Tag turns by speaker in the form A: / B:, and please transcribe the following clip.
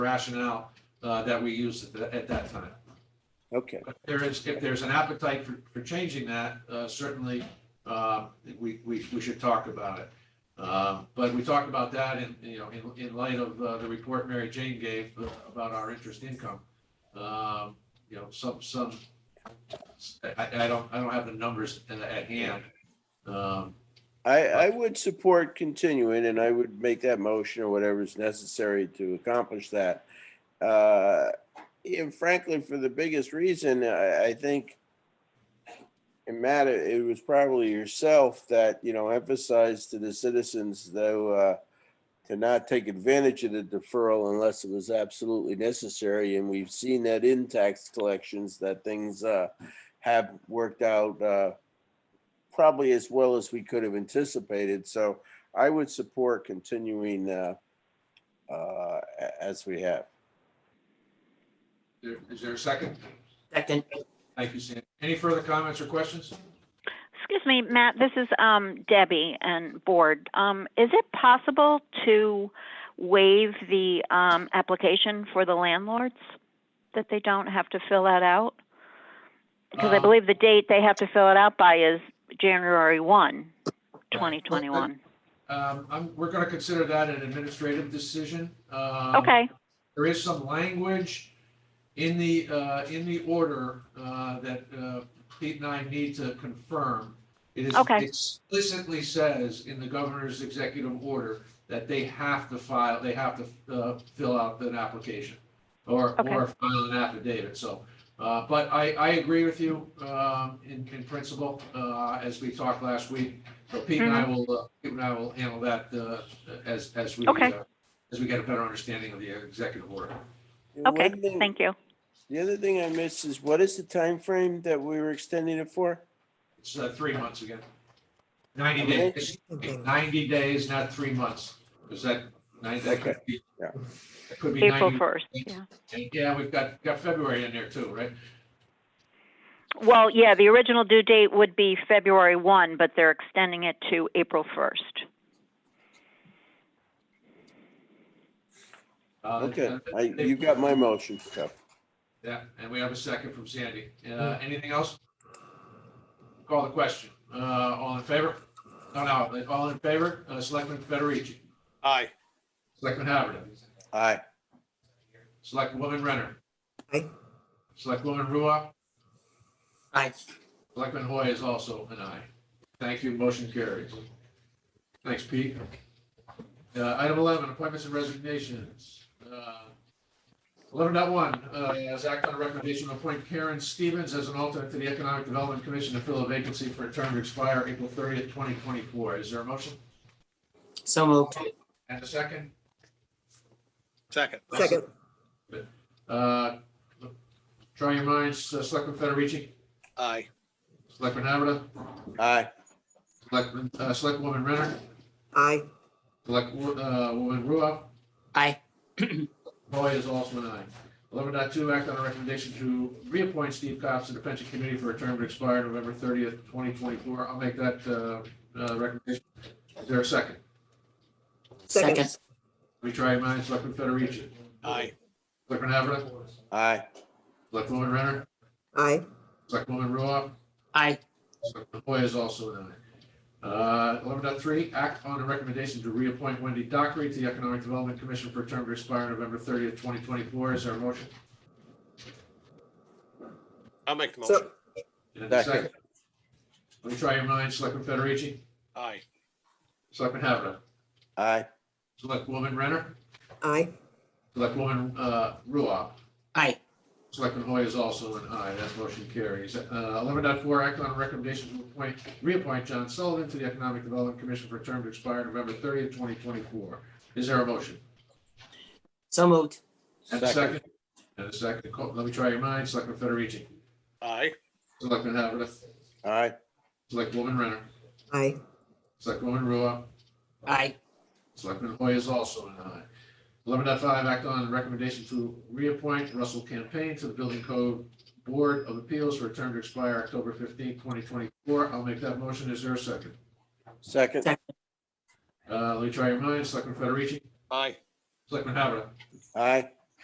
A: rationale uh, that we used at, tha- at that time.
B: Okay,
A: But there is, if there's an appetite for, for changing that, uh, certainly uh, we, we, we should talk about it. Uh, But we talked about that in, you know, in, in light of uh, the report Mary Jane gave uh, about our interest income. Um, You know, some, some, I, I don't, I don't have the numbers at- at hand. Um,
B: I, I would support continuing and I would make that motion or whatever is necessary to accomplish that. Uh, And frankly, for the biggest reason, I, I think and Matt, it it was probably yourself that, you know, emphasized to the citizens though, uh, to not take advantage of the deferral unless it was absolutely necessary. And we've seen that in tax collections that things, uh, have worked out, uh, probably as well as we could have anticipated. So I would support continuing uh, uh, a- as we have.
A: there- Is there a second?
C: Second,
A: Thank you, Sam. Any further comments or questions?
D: Excuse me, Matt, this is um, Debbie and Board. Um, Is it possible to waive the um, application for the landlords? That they don't have to fill that out? Because I
A: Um,
D: believe the date they have to fill it out by is January 1, 2021.
A: Um, I'm, we're gonna consider that an administrative decision. Um,
D: Okay,
A: There is some language in the, uh, in the order, uh, that, uh, Pete and I need to confirm. It is
D: Okay.
A: explicitly says in the governor's executive order that they have to file, they have to, uh, fill out an application or,
D: Okay.
A: or file an affidavit, so. Uh, but I, I agree with you, um, in, in principle, uh, as we talked last week. So Pete and I
D: Mm-hmm.
A: will, uh, Pete and I will handle that, uh, as, as we,
D: Okay.
A: uh, as we get a better understanding of the executive order.
B: And
D: okay,
B: one thing-
D: thank you.
B: The other thing I missed is what is the time frame that we were extending it for?
A: It's uh, three months again. Ninety
B: Okay.
A: days, ninety days, not three months. Is that, nine- that could be,
B: Yeah.
A: that could be
D: April
A: ninety.
D: 1st,
A: days.
D: yeah.
A: And, Yeah, we've got, got February in there too, right?
D: Well, yeah, the original due date would be February 1, but they're extending it to April 1st.
A: Uh,
B: Okay,
A: and-
B: I- you got my motion. so.
A: Yeah, and we have a second from Sandy. Uh,
D: Mm-hmm.
A: anything else? Call the question. Uh, all in favor? No, no, all in favor? Uh, Selectman Federici,
E: Aye.
A: Selectman Havertz,
B: Aye.
A: Selectwoman Renner.
C: Aye.
A: Selectwoman Ruoff.
C: aye.
A: Selectman Hoy is also an aye. Thank you, motion carries. Thanks, Pete. Uh, Item 11, appointments and resignations. Uh, 11.1, uh, Zach on a recommendation to appoint Karen Stevens as an alternate to the Economic Development Commission to fill a vacancy for a term to expire April 30th, 2024. Is there a motion
C: So moved.
A: and a second?
E: Second.
C: Second,
A: Uh, Try your minds, uh, Selectman Federici,
E: Aye.
A: Selectman Haber,
B: Aye.
A: Selectman, uh, Selectwoman Renner,
C: aye.
A: Selectwo- uh, Woman Ruoff,
C: Aye.
A: Boyd is also an aye. Eleven point two act on a recommendation to reappoint Steve Cox to the pension committee for a term to expire November thirtieth, twenty twenty-four. I'll make that, uh, uh, recommendation. Is there a second?
C: Second,
A: Let me try your minds, Selectman Federici.
E: Aye.
A: Selectman Haber,
B: Aye.
A: Selectwoman Renner,
C: aye.
A: Selectwoman Ruoff,
C: Aye.
A: Selectman Hoy is also an aye. Uh, eleven point three act on a recommendation to reappoint Wendy Dockery to the Economic Development Commission for a term to expire November thirtieth, twenty twenty-four. Is there a motion?
E: I'll make the
C: So-
E: motion.
A: And a
B: Second.
A: second. Let me try your minds, Selectman Federici,
E: Aye.
A: Selectman Haber,
B: Aye.
A: Selectwoman Renner,
C: Aye.
A: Selectwoman uh, Ruoff.
C: Aye.
A: Selectman Hoy is also an aye. That motion carries. Uh, Eleven point four act on a recommendation to appoint, reappoint John Sullivan to the Economic Development Commission for a term to expire November thirtieth, twenty twenty-four. Is there a motion?
C: So moved.
A: And a second? And a second. Co- Let me try your minds, Selectman Federici,
E: Aye.
A: Selectman Haber,
B: Aye.
A: Selectwoman Renner,
C: Aye.
A: Selectwoman Ruoff,
C: Aye.
A: Selectman Hoy is also an aye. Eleven point five act on recommendation to reappoint Russell Campaign to the Building Code Board of Appeals for a term to expire October fifteenth, twenty twenty-four. I'll make that motion. Is there a second?
B: Second.
A: Uh, let me try your minds. Selectman Federici,
E: Aye.
A: Selectman Haber,
B: Aye.